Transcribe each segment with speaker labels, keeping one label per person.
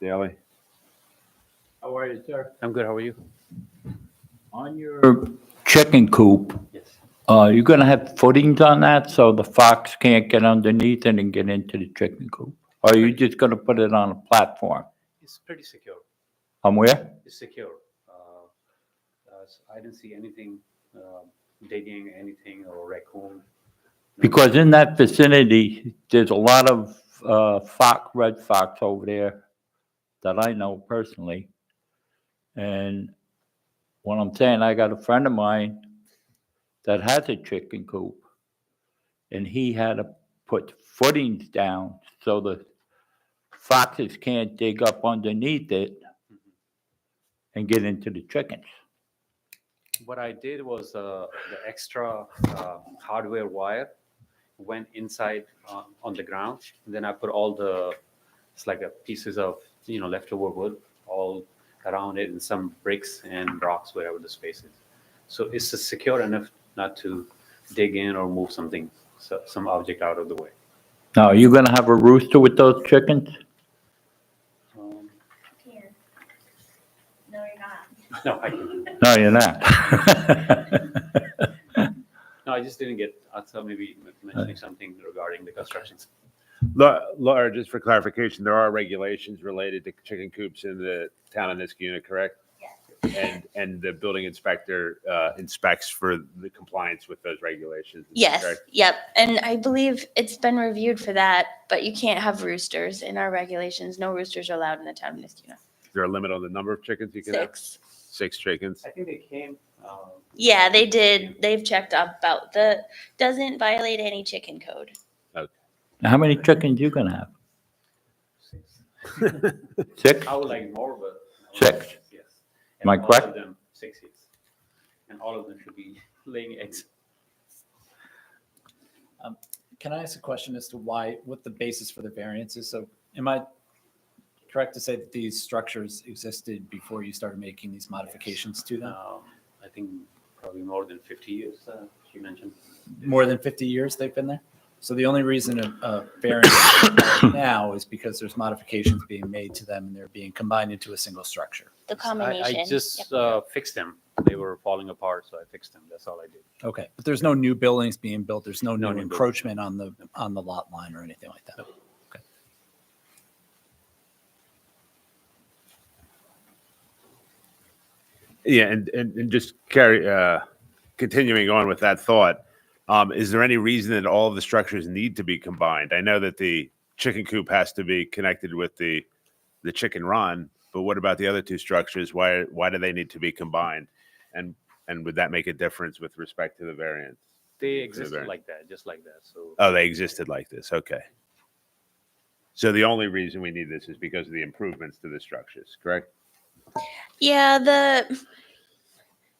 Speaker 1: Daley.
Speaker 2: How are you, sir?
Speaker 3: I'm good. How are you?
Speaker 2: On your,
Speaker 4: Your chicken coop,
Speaker 3: Yes.
Speaker 4: uh, you're gonna have footings on that so the fox can't get underneath it and get into the chicken coop? Or are you just gonna put it on a platform?
Speaker 3: It's pretty secure.
Speaker 4: On where?
Speaker 3: It's secure. Uh, uh, so I didn't see anything um, digging, anything or raccoon.
Speaker 4: Because in that vicinity, there's a lot of, uh, fox, red fox over there that I know personally. And what I'm saying, I got a friend of mine that has a chicken coop. And he had to put footings down so the foxes can't dig up underneath it and get into the chickens.
Speaker 3: What I did was uh, the extra uh, hardware wire went inside uh, on the ground. Then I put all the it's like a pieces of you know leftover wood all around it and some bricks and rocks wherever the space is. So it's uh, secure enough not to dig in or move something so, some object out of the way.
Speaker 4: Now, are you gonna have a rooster with those chickens?
Speaker 3: Um,
Speaker 5: Here. No, you're not.
Speaker 3: no, I can.
Speaker 4: No, you're not.
Speaker 3: No, I just didn't get. I thought maybe mentioning something regarding the constructions.
Speaker 1: La- Laura, just for clarification, there are regulations related to chicken coops in the town of Niskuna, correct? Yes. And, and the building inspector uh, inspects for the compliance with those regulations. is that
Speaker 5: Yes,
Speaker 1: correct?
Speaker 5: yep. And I believe it's been reviewed for that, but you can't have roosters in our regulations. No roosters are allowed in the town of Niskuna.
Speaker 1: Is there a limit on the number of chickens you can have?
Speaker 5: Six.
Speaker 1: Six chickens?
Speaker 3: I think they came. Um,
Speaker 5: Yeah, they did. They've checked up about the, doesn't violate any chicken code.
Speaker 4: How many chickens you gonna have? Six?
Speaker 3: I would like more, but.
Speaker 4: Six.
Speaker 3: Yes.
Speaker 4: Am I
Speaker 3: And all
Speaker 4: correct?
Speaker 3: of them, Six, yes. And all of them should be laying eggs.
Speaker 6: Can I ask a question as to why, what the basis for the variance is? So am I correct to say that these structures existed before you started making these modifications to them?
Speaker 3: Um, I think probably more than fifty years, uh, she mentioned.
Speaker 6: More than 50 years they've been there? So the only reason a- a variance is required now is because there's modifications being made to them and they're being combined into a single structure.
Speaker 5: The
Speaker 3: I-
Speaker 5: combination.
Speaker 3: I
Speaker 5: Yep.
Speaker 3: just uh, fixed them. They were falling apart, so I fixed them. That's all I did.
Speaker 6: Okay, but there's no new buildings being built, there's
Speaker 3: No
Speaker 6: no new
Speaker 3: new buildings.
Speaker 6: encroachment on the, on the lot line or anything like that?
Speaker 1: Yeah, and, and, and just carry, uh, continuing on with that thought, um, is there any reason that all of the structures need to be combined? I know that the chicken coop has to be connected with the, the chicken run, but what about the other two structures? Why, why do they need to be combined? And, and would that make a difference with respect to the variance?
Speaker 3: They
Speaker 1: It's a
Speaker 3: existed
Speaker 1: variant.
Speaker 3: like that, just like that, so.
Speaker 4: Uh.
Speaker 1: Oh, they existed like this, okay. So the only reason we need this is because of the improvements to the structures, correct?
Speaker 5: Yeah, the,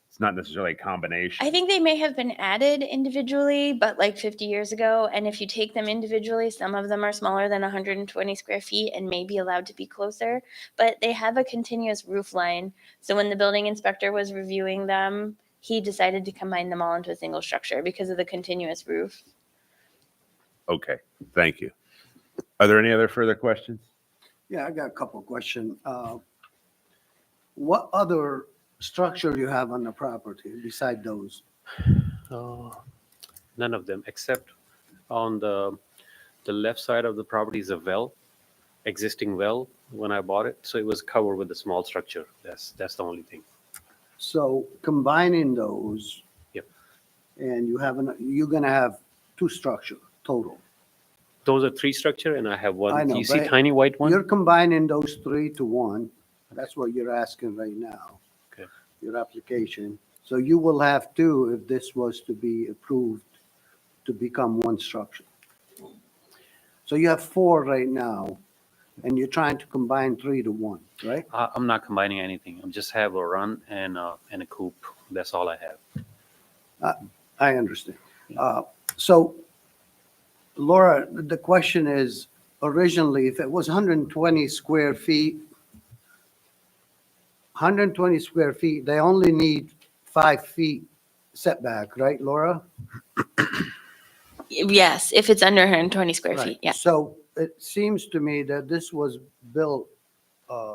Speaker 1: It's not necessarily a combination.
Speaker 5: I think they may have been added individually, but like 50 years ago. And if you take them individually, some of them are smaller than 120 square feet and may be allowed to be closer. But they have a continuous roof line. So when the building inspector was reviewing them, he decided to combine them all into a single structure because of the continuous roof.
Speaker 1: Okay, thank you. Are there any other further questions?
Speaker 7: Yeah, I got a couple of questions. Uh, What other structure you have on the property beside those?
Speaker 3: Uh, None of them, except on the, the left side of the property is a well, existing well when I bought it. So it was covered with a small structure. That's, that's the only thing.
Speaker 7: So combining those.
Speaker 3: Yep.
Speaker 7: And you have, an- you're gonna have two structure total.
Speaker 3: Those are three structure and I have
Speaker 7: I
Speaker 3: one.
Speaker 7: know,
Speaker 3: Do you see
Speaker 7: but
Speaker 3: tiny white one?
Speaker 7: You're combining those three to one. That's what you're asking right now.
Speaker 3: Okay.
Speaker 7: Your application. So you will have two if this was to be approved to become one structure. So you have four right now, and you're trying to combine three to one, right?
Speaker 3: I, I'm not combining anything. I'm just have a run and, uh, and a coop. That's all I have.
Speaker 7: I understand. Uh, So Laura, the question is, originally, if it was 120 square feet, 120 square feet, they only need five feet setback, right, Laura?
Speaker 5: Yes, if it's under 120 square
Speaker 7: Right.
Speaker 5: feet. Yeah.
Speaker 7: So it seems to me that this was built uh,